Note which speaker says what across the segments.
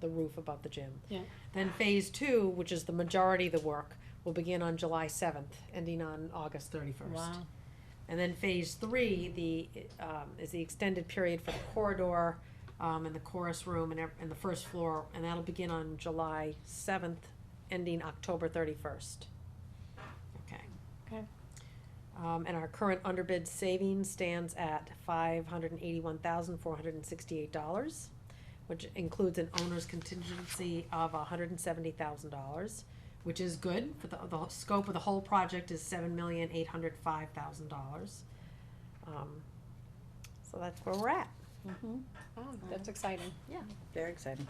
Speaker 1: the roof above the gym.
Speaker 2: Yeah.
Speaker 1: Then phase two, which is the majority of the work, will begin on July seventh, ending on August thirty-first.
Speaker 2: Wow.
Speaker 1: And then phase three, the, um, is the extended period for the corridor, um, and the chorus room and ev- and the first floor, and that'll begin on July seventh, ending October thirty-first. Okay.
Speaker 2: Okay.
Speaker 1: Um, and our current underbid savings stands at five hundred and eighty-one thousand, four hundred and sixty-eight dollars, which includes an owner's contingency of hundred and seventy thousand dollars, which is good, but the, the scope of the whole project is seven million, eight hundred five thousand dollars. Um, so that's where we're at.
Speaker 2: Wow, that's exciting.
Speaker 3: Very exciting.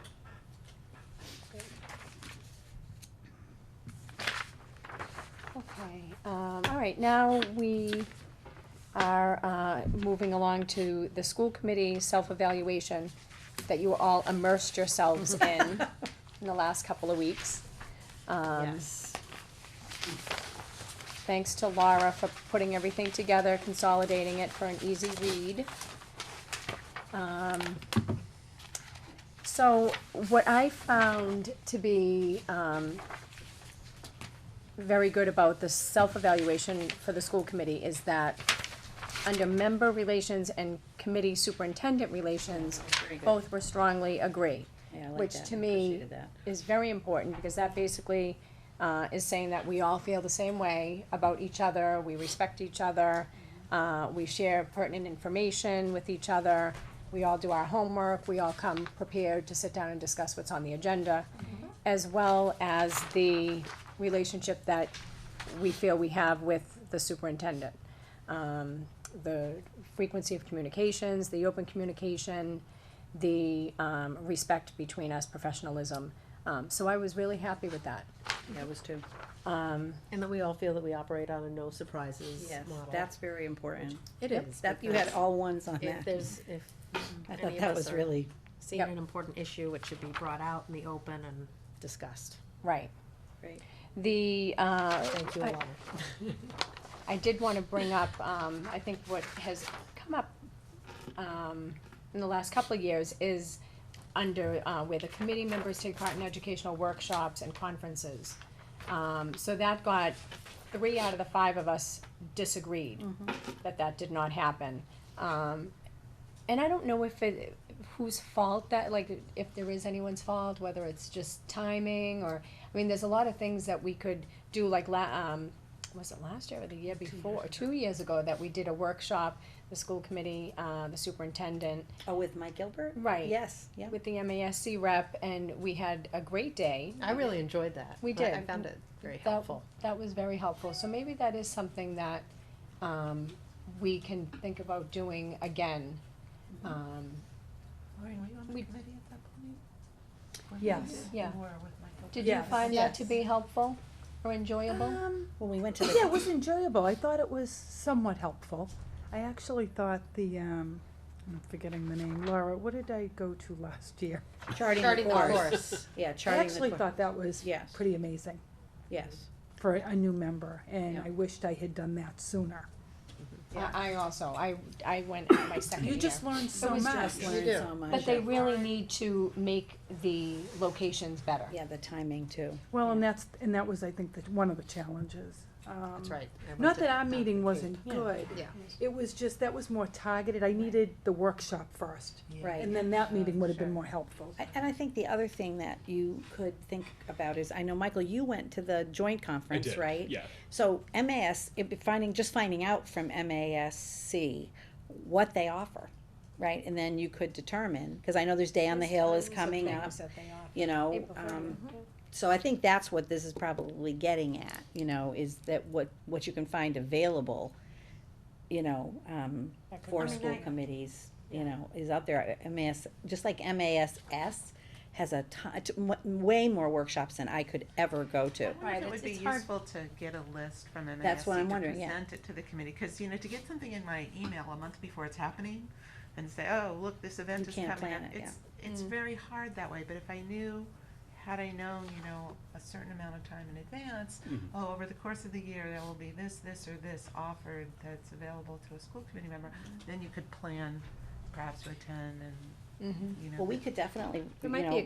Speaker 2: Okay, um, all right, now we are, uh, moving along to the school committee self-evaluation that you all immersed yourselves in, in the last couple of weeks. Um,
Speaker 1: Yes.
Speaker 2: thanks to Laura for putting everything together, consolidating it for an easy read. Um, so what I found to be, um, very good about the self-evaluation for the school committee is that under member relations and committee superintendent relations, both were strongly agree
Speaker 3: Yeah, I like
Speaker 2: which
Speaker 3: that.
Speaker 2: to
Speaker 3: I
Speaker 2: me-
Speaker 3: appreciated that.
Speaker 2: is very important, because that basically, uh, is saying that we all feel the same way about each other, we respect each other, uh, we share pertinent information with each other, we all do our homework, we all come prepared to sit down and discuss what's on the agenda, as well as the relationship that we feel we have with the superintendent. Um, the frequency of communications, the open communication, the, um, respect between us, professionalism. Um, so I was really happy with that.
Speaker 3: Yeah, it was too.
Speaker 2: Um,
Speaker 1: And that we all feel that we operate on a no surprises
Speaker 3: Yes,
Speaker 1: model.
Speaker 3: that's very important.
Speaker 1: It
Speaker 2: Yep,
Speaker 1: is.
Speaker 3: That, you had
Speaker 1: because
Speaker 3: all ones on
Speaker 1: If
Speaker 3: that.
Speaker 1: there's, if
Speaker 3: I
Speaker 1: any
Speaker 3: thought
Speaker 1: of
Speaker 3: that
Speaker 1: us
Speaker 3: was
Speaker 1: are-
Speaker 3: really,
Speaker 1: seen
Speaker 2: Yep.
Speaker 1: an important issue, it should be brought out in the open and discussed.
Speaker 2: right.
Speaker 3: Great.
Speaker 2: The, uh,
Speaker 1: Thank you,
Speaker 2: I-
Speaker 1: Alana.
Speaker 2: I did wanna bring up, um, I think what has come up, um, in the last couple of years is under, uh, where the committee members take part in educational workshops and conferences. Um, so that got, three out of the five of us disagreed that that did not happen. Um, and I don't know if it, whose fault that, like, if there is anyone's fault, whether it's just timing or, I mean, there's a lot of things that we could do, like la- um, was it last year or the year before, two years ago, that we did a workshop, the school committee, uh, the superintendent,
Speaker 3: oh, with Mike Gilbert?
Speaker 2: Right.
Speaker 3: Yes, yeah.
Speaker 2: with the MASC rep, and we had a great day.
Speaker 1: I really enjoyed that.
Speaker 2: We
Speaker 1: I- I
Speaker 2: did.
Speaker 1: found it very
Speaker 2: That-
Speaker 1: helpful.
Speaker 2: That was very helpful, so maybe that is something that, um, we can think about doing again. Um,
Speaker 4: Lauren, were you on the
Speaker 2: We-
Speaker 4: committee at that point? When
Speaker 3: Yes.
Speaker 4: you
Speaker 2: Yeah.
Speaker 4: were with Michael?
Speaker 2: Did you
Speaker 3: Yes.
Speaker 2: find that to
Speaker 3: Yes.
Speaker 2: be helpful or enjoyable?
Speaker 4: Um,
Speaker 3: When we went to
Speaker 4: yeah,
Speaker 3: the,
Speaker 4: it was enjoyable. I thought it was somewhat helpful. I actually thought the, um, I'm forgetting the name, Laura, what did I go to last year?
Speaker 3: charting the course. Yeah,
Speaker 4: I
Speaker 3: charting
Speaker 4: actually
Speaker 3: the course.
Speaker 4: thought that was
Speaker 3: Yes,
Speaker 4: pretty amazing
Speaker 3: yes.
Speaker 4: for a new member, and
Speaker 3: Yeah.
Speaker 4: I wished I had done that sooner.
Speaker 2: I, I also, I, I went on my second year.
Speaker 4: You just learned so
Speaker 2: was
Speaker 4: much.
Speaker 2: just-
Speaker 3: You learned
Speaker 1: do.
Speaker 3: so much.
Speaker 2: But they really need to make the locations better.
Speaker 3: Yeah, the timing too.
Speaker 4: Well, and that's, and that was, I think, the- one of the challenges.
Speaker 1: That's
Speaker 4: Um,
Speaker 1: right.
Speaker 4: Not that our meeting wasn't good.
Speaker 1: Yeah.
Speaker 4: It was just, that was more targeted. I needed the workshop first.
Speaker 3: Right.
Speaker 4: And then that meeting would have
Speaker 1: Sure.
Speaker 4: been more helpful.
Speaker 3: I- And I think the other thing that you could think about is, I know, Michael, you went to the joint conference,
Speaker 5: did,
Speaker 3: right?
Speaker 5: yeah.
Speaker 3: So MAS, it'd be finding, just finding out from MASC what they offer, right? And then you could determine, because I know there's Day on the Hill is coming up, you know.
Speaker 2: April
Speaker 3: um,
Speaker 4: Mm-hmm.
Speaker 3: So I think that's what this is probably getting at, you know, is that what, what you can find available, you know, um, for school committees, you know, is out there. MAS, just like MASs has a ton, t- m- way more workshops than I could ever go to.
Speaker 6: I wonder
Speaker 2: Right,
Speaker 6: if it would
Speaker 2: it's-
Speaker 6: be
Speaker 2: it's hard-
Speaker 6: useful to get a list from MASC
Speaker 3: That's what I'm
Speaker 6: to
Speaker 3: wondering, yeah.
Speaker 6: present it to the committee, because, you know, to get something in my email a month before it's happening and say, oh, look, this event
Speaker 3: You
Speaker 6: is
Speaker 3: can't
Speaker 6: coming up,
Speaker 3: plan it,
Speaker 6: it's,
Speaker 2: Mm.
Speaker 6: it's very hard that way, but if I knew, had I known, you know, a certain amount of time in advance, oh, over the course of the year, there will be this, this, or this offered that's available to a school committee member,
Speaker 2: Mm.
Speaker 6: then you could plan perhaps to attend and, you know.
Speaker 3: Mm-hmm. Well, we
Speaker 6: but-
Speaker 4: Mm-hmm.
Speaker 3: could definitely, you
Speaker 2: might be
Speaker 3: know,